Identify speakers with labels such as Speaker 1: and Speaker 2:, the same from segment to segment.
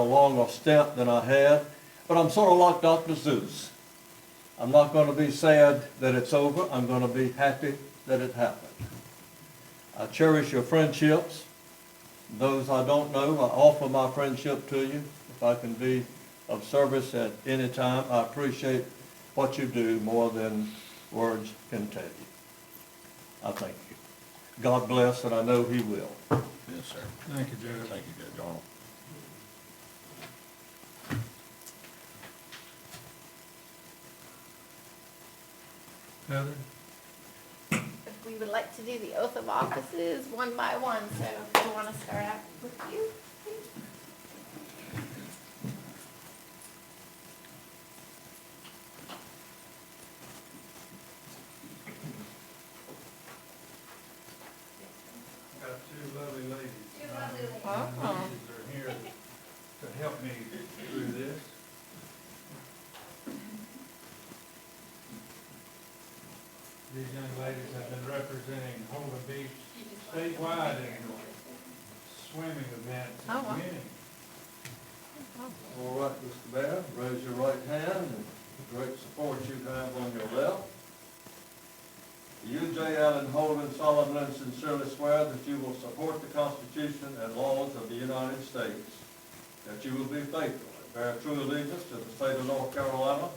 Speaker 1: along a step than I had, but I'm sort of like Dr. Zeus. I'm not going to be sad that it's over. I'm going to be happy that it happened. I cherish your friendships. Those I don't know, I offer my friendship to you. If I can be of service at any time, I appreciate what you do more than words can tell you. I thank you. God bless, and I know he will.
Speaker 2: Yes, sir.
Speaker 3: Thank you, Judge.
Speaker 2: Thank you, Judge Arnold.
Speaker 3: Heather?
Speaker 4: If we would like to do the oath of offices one by one, so if you want to start out with you.
Speaker 3: Got two lovely ladies. Two
Speaker 4: lovely ladies. Uh-huh.
Speaker 3: They're here to help me through this. These young ladies have been representing Holden Beach statewide in swimming events
Speaker 4: Oh,
Speaker 3: and
Speaker 4: wow.
Speaker 3: community.
Speaker 1: All right, Mr. Mayor, raise your right hand and the great support you have on your left. You, J. Allen Holden, solemnly and sincerely swear that you will support the Constitution and laws of the United States, that you will be faithful and bear true allegiance to the state of North Carolina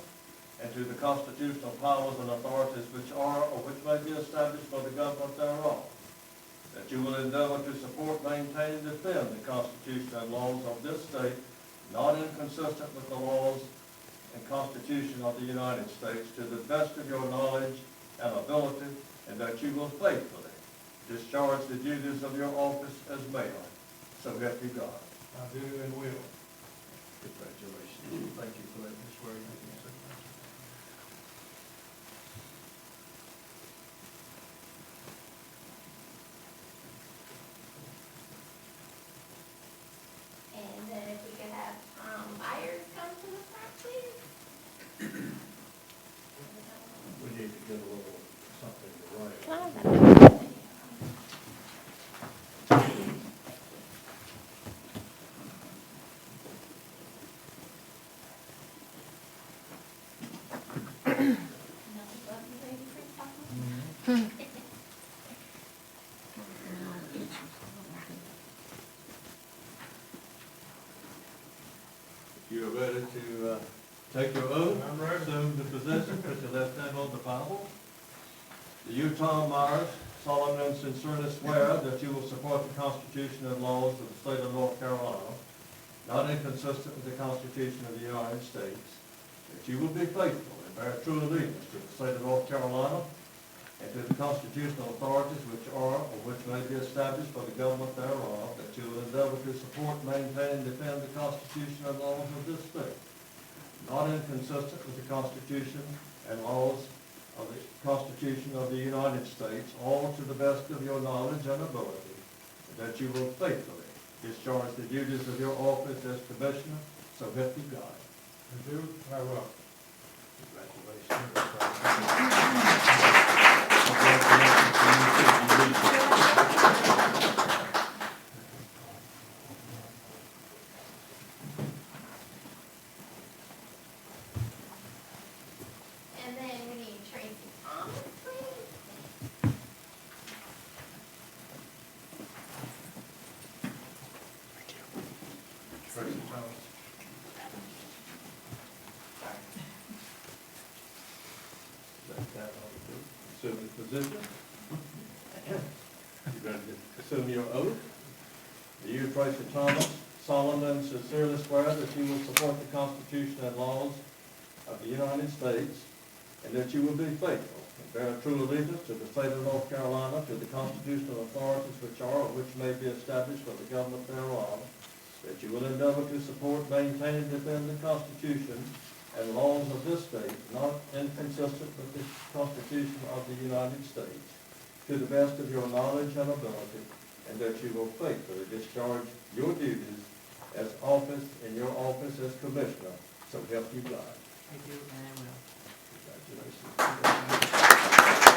Speaker 1: and to the constitutional powers and authorities which are or which may be established for the government thereof, that you will endeavor to support, maintain, and defend the Constitution and laws of this state, not inconsistent with the laws and Constitution of the United States, to the best of your knowledge and ability, and that you will faithfully discharge the duties of your office as mayor. So help you God.
Speaker 3: I do and will.
Speaker 1: Congratulations. Thank you for letting me swear you in, sir.
Speaker 4: And then if we could have um, buyers come to the front, please.
Speaker 1: We need to get a little something to write. You're ready to uh, take your oath?
Speaker 3: I'm ready.
Speaker 1: Assume the position, put your left hand on the Bible. Do you, Tom Myers, solemnly and sincerely swear that you will support the Constitution and laws of the state of North Carolina, not inconsistent with the Constitution of the United States, that you will be faithful and bear true allegiance to the state of North Carolina and to the constitutional authorities which are or which may be established for the government thereof, that you will endeavor to support, maintain, and defend the Constitution and laws of this state, not inconsistent with the Constitution and laws of the Constitution of the United States, all to the best of your knowledge and ability, and that you will faithfully discharge the duties of your office as Commissioner, so help you God.
Speaker 3: I do, I will.
Speaker 4: And then we need Tracy Thomas, please.
Speaker 1: Tracy Thomas. Let that all do. Assume the position. You ready to assume your oath? Do you, Tracy Thomas, solemnly and sincerely swear that you will support the Constitution and laws of the United States, and that you will be faithful and bear true allegiance to the state of North Carolina, to the constitutional authorities which are or which may be established for the government thereof, that you will endeavor to support, maintain, and defend the Constitution and laws of this state, not inconsistent with the Constitution of the United States, to the best of your knowledge and ability, and that you will faithfully discharge your duties as office, in your office as Commissioner, so help you God.
Speaker 5: I do, and I will.
Speaker 1: Congratulations.